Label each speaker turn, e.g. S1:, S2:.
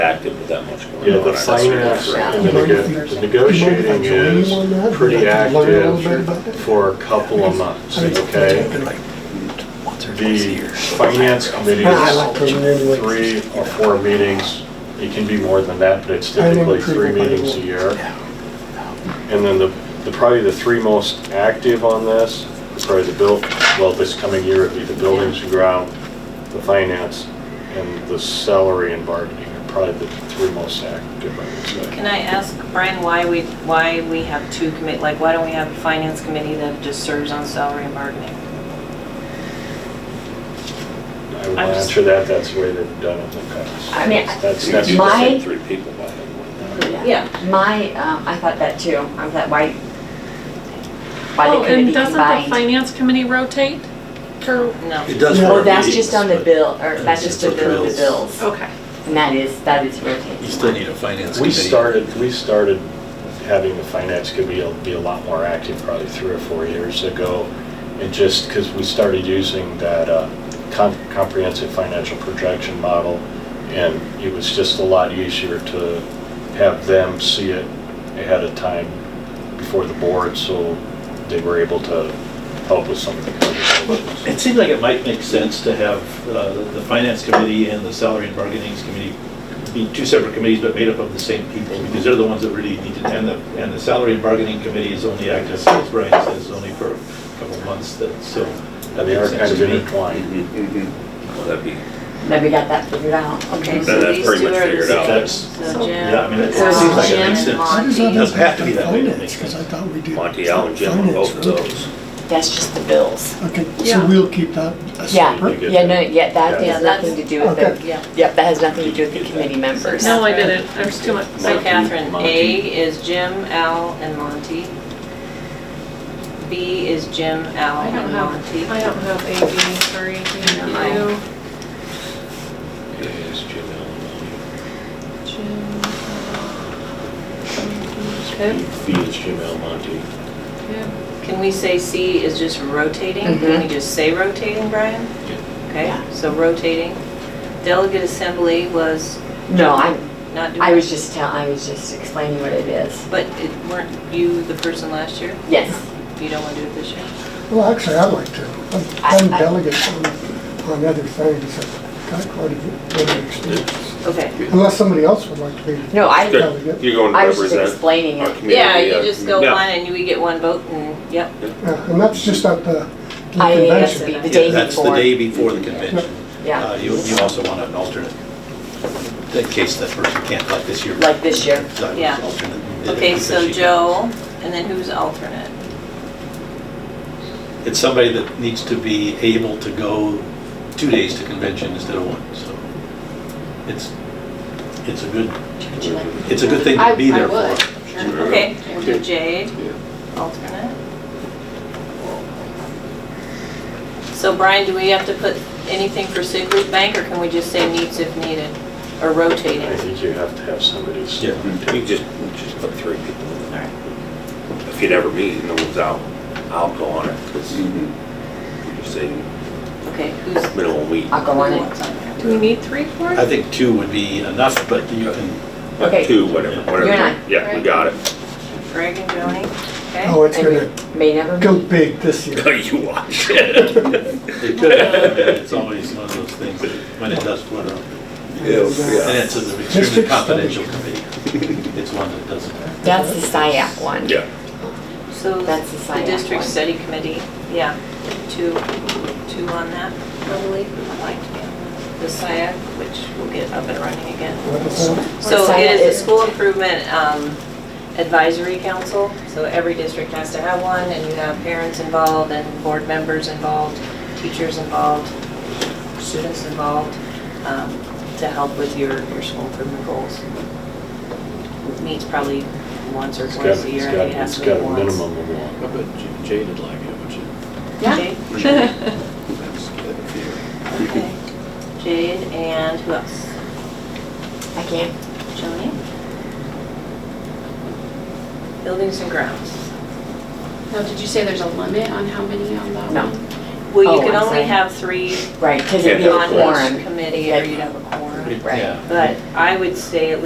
S1: active with that much going
S2: Yeah,
S1: on.
S2: the
S1: I just-
S2: finance, the neg- the negotiating is pretty active for a couple of months, okay? The finance committee is three or four meetings. It can be more than that, but it's typically three meetings a year. And then the, the, probably the three most active on this, is probably the bill, well, this coming year would be the buildings and ground, the finance, and the salary and bargaining are probably the three most active, I would say.
S3: Can I ask Brian why we, why we have two commit, like, why don't we have a finance committee that just serves on salary and bargaining?
S2: I will
S3: I'm just-
S2: answer that, that's the way they've done it in the past.
S4: I mean,
S2: That's,
S1: You do the
S2: that's,
S1: same
S4: My-
S1: Three people by hand.
S3: Yeah.
S4: My, um, I thought that too, I'm that why, why
S5: Oh,
S4: they couldn't be
S5: and doesn't the
S4: combined.
S5: finance committee rotate? Or,
S3: No.
S6: It does
S4: Oh,
S6: for
S4: that's
S6: meetings,
S4: just on the
S6: but
S4: bill, or that's just
S6: It's
S4: to
S6: for
S4: bill the
S6: bills.
S4: bills,
S5: okay.
S4: and that is, that is
S6: You
S4: rotating.
S6: still need a finance committee.
S2: we started, we started having the finance committee be a lot more active probably three or four years ago. And just because we started using that uh, com- comprehensive financial projection model, and it was just a lot easier to have them see it ahead of time before the board, so they were able to help with some of the conversations.
S7: It seems like it might make sense to have uh, the Finance Committee and the Salary and Bargaining Committee be two separate committees, but made up of the same people, because they're the ones that really need to, and the, and the Salary and Bargaining Committee is only active, as Brian says, only for a couple of months, that, so. that
S2: They are
S7: makes
S2: kind
S7: sense
S2: of
S7: to me.
S2: intertwined.
S1: Well, that'd be,
S4: Then we got that figured out, okay.
S1: Then that's pretty much figured out.
S2: That's-
S3: So Jim.
S7: Yeah, I mean, it it
S4: So
S7: seems like it makes
S4: Jim,
S7: sense.
S4: Monty,
S7: Doesn't have to be that way, it makes
S8: Because I
S7: sense.
S8: thought we did.
S1: Monty, Al, and Jim on both of
S8: Finance,
S1: those.
S4: That's just the bills.
S8: Okay,
S5: Yeah.
S8: so we'll keep that a
S4: Yeah,
S2: You
S8: separate.
S2: get
S4: yeah,
S2: that.
S4: no, yeah, that
S2: Yeah.
S4: has nothing to do with
S8: Okay.
S4: the,
S3: Yeah.
S4: yep, that has nothing to do with
S1: Did
S4: the
S1: that.
S4: committee members.
S5: No, I didn't. There's too much.
S3: So Catherine,
S2: Monty.
S3: A is Jim, Al, and Monty. B is Jim, Al,
S5: I don't
S3: and Monty.
S5: have, I don't have A, B, or A, B, U.
S1: it is Jim Allen.
S5: Jim,
S1: B B is Jim Almonte.
S5: yeah.
S3: Can we say C is just rotating?
S4: Mm-hmm.
S3: Can we just say rotating, Brian?
S4: Yeah.
S3: Okay, so rotating. Delegate assembly was
S4: No, I,
S3: not doing.
S4: I was just tell, I was just explaining what it is.
S3: But it- weren't you the person last year?
S4: Yes.
S3: You don't want to do it this year?
S8: Well, actually, I'd like to. I'm-
S4: I-
S8: I'm
S4: I-
S8: delegate on, on other things. I've got quite a bit of experience.
S3: Okay.
S8: Unless somebody else would like to be.
S4: No, I,
S8: Good.
S9: You're going
S4: I
S9: to
S4: was just
S9: represent
S4: explaining
S9: our
S4: it.
S9: community.
S3: Yeah,
S9: uh,
S3: you just go
S9: yeah.
S3: on and we get one vote and, yep.
S8: Yeah, And that's just at the the
S4: I,
S3: that's
S8: convention.
S3: it.
S4: the day
S7: Yeah, That's the
S4: before,
S7: day before the convention.
S4: Yeah.
S7: Uh, You, you also want an alternate, in case that person can't, like this year.
S4: like this year.
S7: So I was
S3: Yeah.
S7: alternate.
S3: Okay, so
S7: She-
S3: Joe, and then who's alternate?
S7: It's somebody that needs to be able to go two days to convention instead of one, so it's, it's a good,
S4: Would you like me to-
S7: it's a good thing to be there for.
S3: Okay, we'll do
S9: Okay.
S3: Jade, alternate. So Brian, do we have to put anything for Sig Root Bank or can we just say needs if needed or
S2: I
S3: rotating?
S2: think you have to have somebody. s-
S7: Yeah.
S1: You just, you just put three people in there. If you never meet and no one's out, I'll go on it, because
S9: Mhm.
S1: you're saying
S3: Okay, who's?
S1: minimum week.
S4: Mm-hmm. I'll go on it.
S3: what's on there?
S5: Do we need three for
S7: I
S5: it?
S7: think two would be enough, but you can,
S4: Okay.
S1: Two, whatever, whatever.
S4: You're not,
S1: Yeah, we
S5: right?
S1: got it.
S3: Greg and Joni, okay?
S8: Oh, it's gonna
S4: and we may never
S8: go
S4: meet.
S8: big this year.
S1: You watch it.
S7: it could, it's always one of those things that when it does flutter. up. And it's an extremely confidential committee. It's one that doesn't.
S4: That's the SiAC one.
S1: Yeah.
S3: So
S4: That's the
S3: the
S4: sign-up
S3: district
S4: one.
S3: study committee, yeah, two, two on that, probably, I'd like to be on the SIAC, which will get up and running again.
S8: What is that?
S3: So
S4: SIAC
S3: it is
S4: is?
S3: the school improvement um, advisory council, so every district has to have one, and you have parents involved, and board members involved, teachers involved, students involved, um, to help with your, your school improvement goals. Meets probably once or
S2: It's got,
S3: twice a
S2: it's
S3: year, I think
S2: got,
S3: it has
S2: it's
S3: to be
S2: got a
S3: once.
S2: minimum of one.
S6: I bet Jade would like it, would you?
S3: Jade? Okay. Jade and who else?
S4: I can't,
S3: Joni? Buildings and grounds.
S10: Now, did you say there's a limit on how many on that
S4: No.
S10: one?
S3: Well, you
S4: Oh,
S3: can
S4: I'm
S3: only
S4: sorry.
S3: have three
S4: right, because
S3: on
S4: it'd be a
S3: each
S4: quorum.
S3: committee or you'd have a quorum. But I would say at